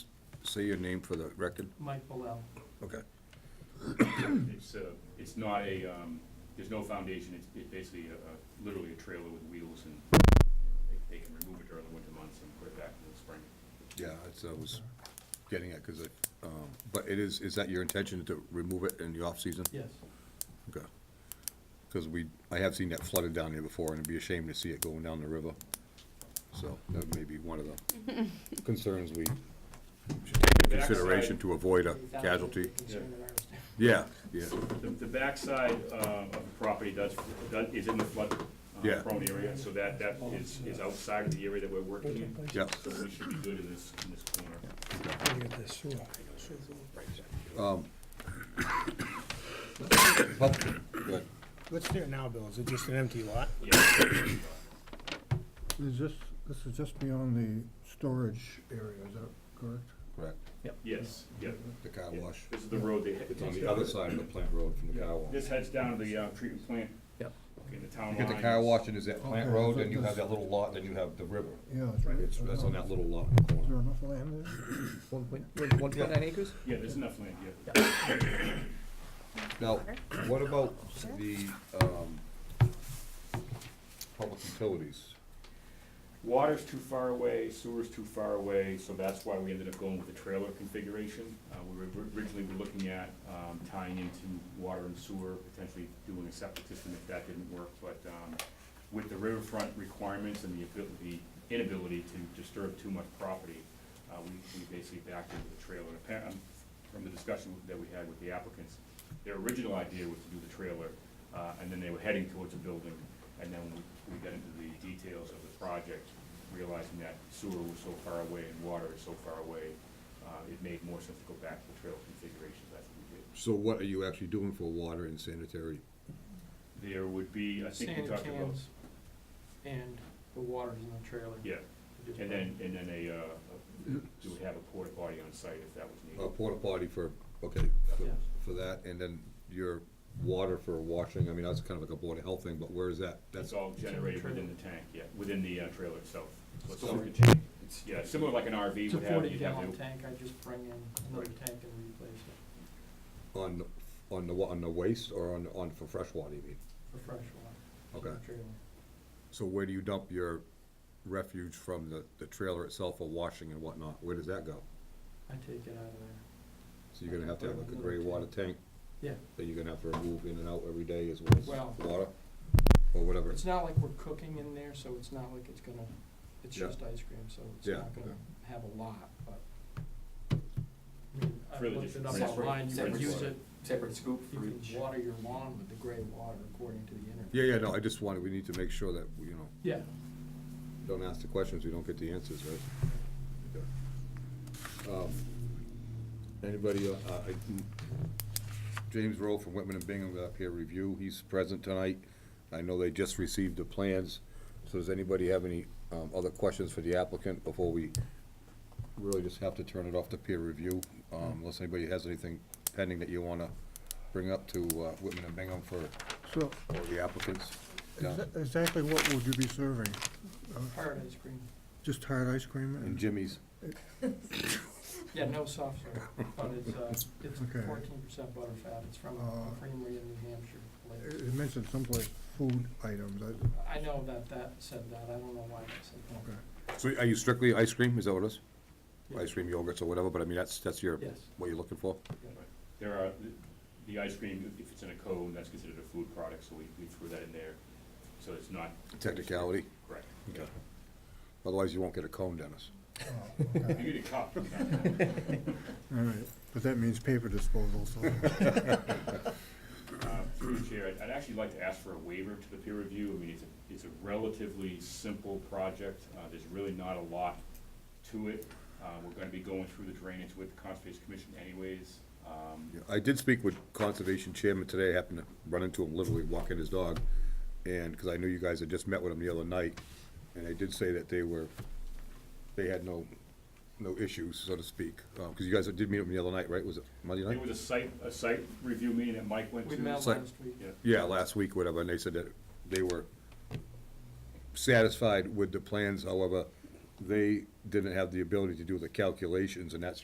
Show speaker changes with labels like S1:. S1: say your name for the record?
S2: Mike Bilal.
S1: Okay.
S3: It's, uh, it's not a, um, there's no foundation, it's, it's basically a, a- literally a trailer with wheels and they, they can remove it during the winter months and put it back in the spring.
S1: Yeah, that's, I was getting at, because I, um, but it is, is that your intention to remove it in the off-season?
S2: Yes.
S1: Okay. Because we, I have seen that flooded down here before, and it'd be a shame to see it going down the river. So that may be one of the concerns we should take into consideration to avoid a casualty. Yeah, yeah,
S3: The, the backside, uh, of the property does, does- is in the flood
S1: Yeah.
S3: uh, prone area, so that, that is, is outside of the area that we're working in.
S1: yeah.
S3: So we should be good in this, in this corner.
S1: Well, good.
S4: What's there now, Bill? Is it just an empty lot?
S3: Yeah,
S5: Is this, this is just beyond the storage area, is that correct?
S1: Correct,
S3: yes, yeah.
S1: the car wash.
S3: This is the road they.
S1: It's on the other side of the plant road from the car wash.
S3: This heads down to the, uh, treatment plant.
S2: Yep.
S3: In the town
S1: You
S3: line.
S1: get the car wash, and there's that plant
S5: Okay,
S1: road,
S5: so
S1: and you have
S5: this-
S1: that little lot, then you have the river.
S5: Yeah.
S1: It's, that's on that little lot in the
S5: Is
S1: corner.
S5: there enough land there?
S6: One point, one- one point nine acres?
S3: Yeah, there's enough land, yeah.
S1: Now, what about the, um, public utilities?
S3: Water's too far away, sewer's too far away, so that's why we ended up going with the trailer configuration. Uh, we were originally were looking at, um, tying into water and sewer, potentially doing a septic system if that didn't work, but, um, with the riverfront requirements and the ability, inability to disturb too much property, uh, we, we basically backed into the trailer. Apparently, from the discussion that we had with the applicants, their original idea was to do the trailer, uh, and then they were heading towards a building, and then we, we got into the details of the project, realizing that sewer was so far away and water is so far away, uh, it made more sense to go back to the trailer configuration, that's what we did.
S1: So what are you actually doing for water and sanitary?
S3: There would be, I think we
S2: Sand
S3: talked about,
S2: cans and the water's in the trailer.
S3: yeah,
S2: Just
S3: and then, and then a, uh, a- you would have a porta potty on site if that was
S1: A
S3: needed.
S1: uh, porta potty for, okay, for,
S2: Yeah.
S1: for that, and then your water for washing, I mean, that's kind of like a board of health thing, but where is that?
S3: That's
S1: That's,
S3: all generated within the tank, yeah, within the uh, trailer itself. So it's all
S1: So-
S3: contained. Yeah, similar like an RV
S2: It's a
S3: would have,
S2: forty
S3: you'd have
S2: gallon
S3: to,
S2: tank, I just bring in another tank and replace it
S1: on, the- on the, wa- on the waste or on, on for fresh water, you mean?
S2: for fresh water.
S1: Okay.
S2: Trailer.
S1: So where do you dump your refuge from the, the trailer itself for washing and whatnot? Where does that go?
S2: I take it out of there.
S1: So you're gonna have to have like a gray water tank
S2: Yeah,
S1: that you're gonna have to remove in and out every day as well
S2: Well-
S1: as water? Or whatever,
S2: it's not like we're cooking in there, so it's not like it's gonna, it's
S1: Yeah.
S2: just ice cream, so it's
S1: Yeah,
S2: not gonna
S1: okay.
S2: have a lot, but. I mean, I
S3: Really
S2: looked
S3: just
S2: it up
S3: rinse-
S2: online, you can
S3: rinse
S2: use
S3: water.
S2: it,
S6: Separate scoop
S2: you can water your lawn with the gray water according to the internet.
S1: Yeah, yeah, no, I just wanted, we need to make sure that, we, you know,
S2: Yeah,
S1: don't ask the questions, we don't get the answers, right? Okay. Um, Anybody, uh, uh, I- James Rowe from Whitman and Bingham got up here review, he's present tonight. I know they just received the plans, so does anybody have any um, other questions for the applicant before we really just have to turn it off to peer review? Um, Unless anybody has anything pending that you wanna bring up to uh, Whitman and Bingham for,
S5: So,
S1: for the applicants? Yeah.
S5: exa- exactly what would you be serving? Uh,
S2: hard ice cream.
S5: Just hard ice cream
S1: Uh, And
S5: and,
S1: Jimmy's,
S2: Yeah, no soft serve, but it's, uh, it's
S5: Okay.
S2: fourteen percent butterfat, it's from
S5: Uh,
S2: a creamery in New Hampshire.
S5: it
S2: Like,
S5: it mentioned someplace food items, I,
S2: I know that that said that, I don't know why it said
S5: okay.
S1: so are you strictly ice cream, is that what it is?
S2: that.
S1: ice cream yogurts or whatever, but I mean, that's, that's your,
S2: Yes.
S1: what you're looking for?
S3: there are, the ice cream, if it's in a cone, that's considered a food product, so we, we threw that in there. So it's not
S1: Technicality?
S3: correct.
S1: Okay. Otherwise, you won't get a cone, Dennis.
S5: Oh, okay.
S3: You get a cup. uh,
S5: All right, but that means paper disposal, so.
S3: Uh, Through the chair, I'd- I'd actually like to ask for a waiver to the peer review. I mean, it's a, it's a relatively simple project. Uh, There's really not a lot to it. Uh, We're gonna be going through the drainage with the Conservation Commission anyways. Um,
S1: Yeah, I did speak with Conservation Chairman today, I happened to run into him literally walking his dog, and, because I knew you guys had just met with him the other night, and they did say that they were, they had no, no issues, so to speak, because you guys did meet with him the other night, right? Was it Monday
S3: There
S1: night?
S3: was a site, a site review meeting that Mike went
S2: We
S3: to.
S2: met
S1: It's like-
S2: last week.
S3: Yeah.
S1: Yeah, last week, whatever, and they said that they were satisfied with the plans, however, they didn't have the ability to do the calculations, and that's